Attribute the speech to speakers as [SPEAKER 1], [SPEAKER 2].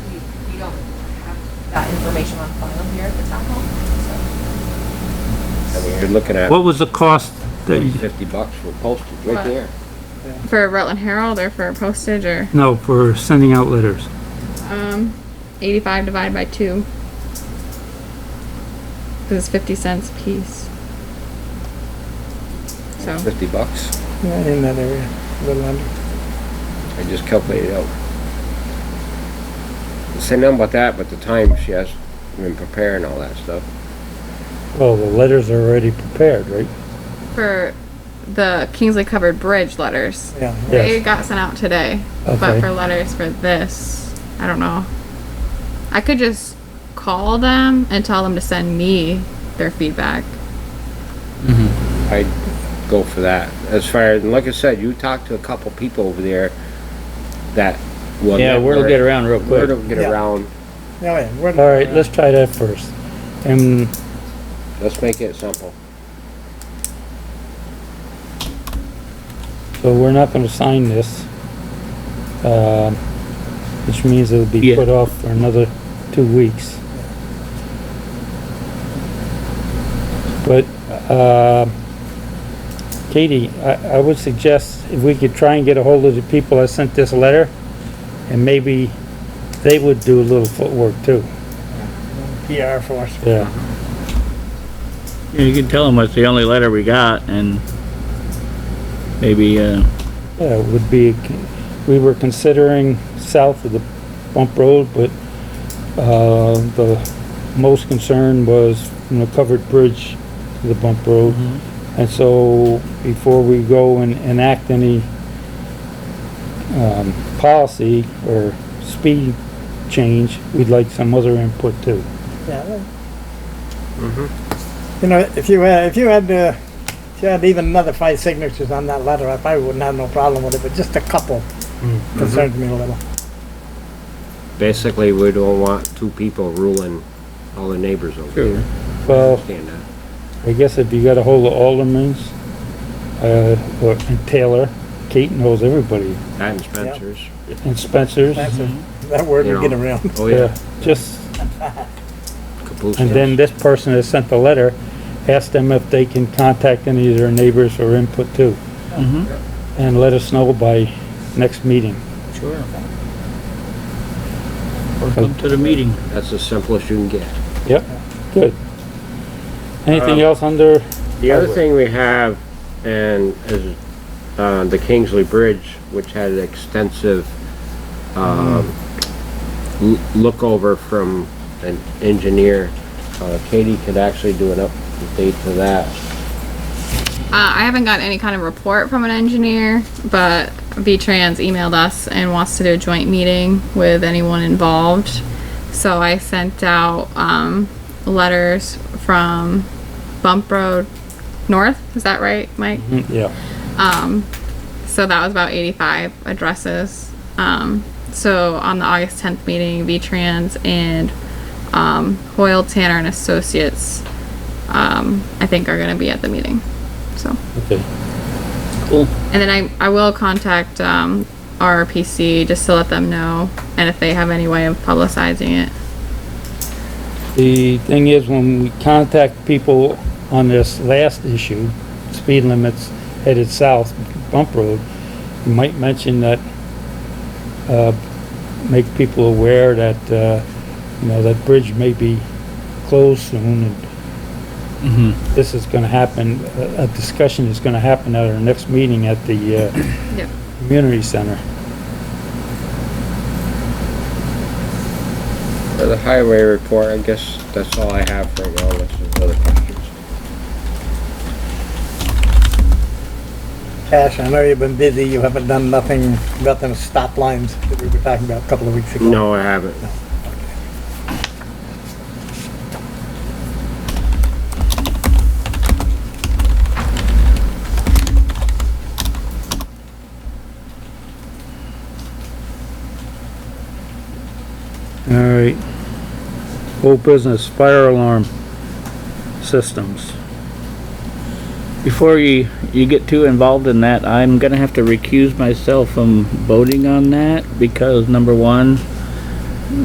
[SPEAKER 1] that information on file here at the town hall, so.
[SPEAKER 2] I mean, you're looking at
[SPEAKER 3] What was the cost that, you-
[SPEAKER 2] fifty bucks for postage right there.
[SPEAKER 4] For Rutland Herald or for postage or
[SPEAKER 3] no, for sending out letters?
[SPEAKER 4] um, 85 divided by 2? Because it's 50 cents a piece. So,
[SPEAKER 2] Fifty bucks.
[SPEAKER 5] Yeah, in that area, a little under.
[SPEAKER 2] I just calculated it out. Say nothing about that, but the time she has been preparing all that stuff.
[SPEAKER 6] Well, the letters are already prepared, right?
[SPEAKER 4] for the Kingsley Covered Bridge letters,
[SPEAKER 5] Yeah. Oh,
[SPEAKER 4] they
[SPEAKER 6] Yes.
[SPEAKER 4] got sent out today. But
[SPEAKER 6] Okay.
[SPEAKER 4] for letters for this, I don't know. I could just call them and tell them to send me their feedback.
[SPEAKER 2] I'd go for that. As far, as like I said, you talk to a couple people over there that will.
[SPEAKER 6] Yeah, word will
[SPEAKER 2] network.
[SPEAKER 6] get around real
[SPEAKER 2] Word
[SPEAKER 6] quick.
[SPEAKER 2] will get
[SPEAKER 5] Yeah.
[SPEAKER 2] around.
[SPEAKER 5] Oh, yeah. we're-
[SPEAKER 6] All right, let's try that first. And
[SPEAKER 2] Let's make it simple.
[SPEAKER 6] so we're not gonna sign this. Um, which means it'll be
[SPEAKER 3] Yeah.
[SPEAKER 6] put off for another two weeks. But, uh, Katie, I, I would suggest if we could try and get a hold of the people that sent this letter, and maybe they would do a little footwork too,
[SPEAKER 5] PR uh, for us.
[SPEAKER 6] yeah.
[SPEAKER 7] Yeah, You can tell them it's the only letter we got and maybe, uh,
[SPEAKER 6] Yeah, it would be, we were considering south of the bump road, but, uh, the most concern was from the covered bridge to the bump road. And so before we go and enact any, um, policy or speed change, we'd like some other input too.
[SPEAKER 5] Yeah. well.
[SPEAKER 2] Mm-hmm.
[SPEAKER 5] You know, if you had, if you had, uh, if you had even another five signatures on that letter, I probably wouldn't have no problem with it, but just a couple
[SPEAKER 2] Mm-hmm.
[SPEAKER 5] concerns me a little.
[SPEAKER 2] Basically, we don't want two people ruling all the neighbors over
[SPEAKER 6] True.
[SPEAKER 2] here.
[SPEAKER 6] Well,
[SPEAKER 2] Understand that.
[SPEAKER 6] I guess if you got a hold of Alderman's, uh, or and Taylor, Kate knows everybody,
[SPEAKER 2] That and Spencer's.
[SPEAKER 6] and Spencer's.
[SPEAKER 5] That's a, that word would get
[SPEAKER 2] Yeah.
[SPEAKER 5] around.
[SPEAKER 2] Oh,
[SPEAKER 6] Yeah,
[SPEAKER 2] yeah.
[SPEAKER 6] just,
[SPEAKER 2] Caboose
[SPEAKER 6] and then
[SPEAKER 2] knows.
[SPEAKER 6] this person that sent the letter, ask them if they can contact any of their neighbors or input too.
[SPEAKER 7] Mm-hmm.
[SPEAKER 6] And let us know by next meeting.
[SPEAKER 7] sure. Or come to the meeting.
[SPEAKER 2] That's the simplest you can get.
[SPEAKER 6] Yep, Um, good. Anything else under,
[SPEAKER 2] The other
[SPEAKER 6] Highway.
[SPEAKER 2] thing we have, and is, uh, the Kingsley Bridge, which had an extensive, um, l- look over from an engineer. Uh, Katie could actually do an update to that.
[SPEAKER 4] Uh, I haven't gotten any kind of report from an engineer, but VTrans emailed us and wants to do a joint meeting with anyone involved. So I sent out um, letters from Bump Road North. Is that right, Mike?
[SPEAKER 6] yeah,
[SPEAKER 4] So that was about 85 addresses. Um, so on the August 10th meeting, VTrans and um, Hoyle Tanner and Associates, um, I think, are going to be at the meeting. So.
[SPEAKER 6] okay.
[SPEAKER 4] And then I, I will contact, um, RRPC just to let them know and if they have any way of publicizing it.
[SPEAKER 6] The thing is, when we contact people on this last issue, speed limits headed south, bump road, you might mention that, uh, make people aware that, uh, you know, that bridge may be closed soon and this is gonna happen, a, a discussion is gonna happen at our next meeting at the, uh,
[SPEAKER 4] Yep.
[SPEAKER 6] community center.
[SPEAKER 2] For the highway report, I guess that's all I have right now, unless there's other questions.
[SPEAKER 5] Cash, I know you've been busy, you haven't done nothing about them stop lines that we were talking about a couple of weeks ago.
[SPEAKER 2] No, I haven't.
[SPEAKER 6] All right. Old business, fire alarm systems.
[SPEAKER 7] Before you, you get too involved in that, I'm gonna have to recuse myself from voting on that because number one,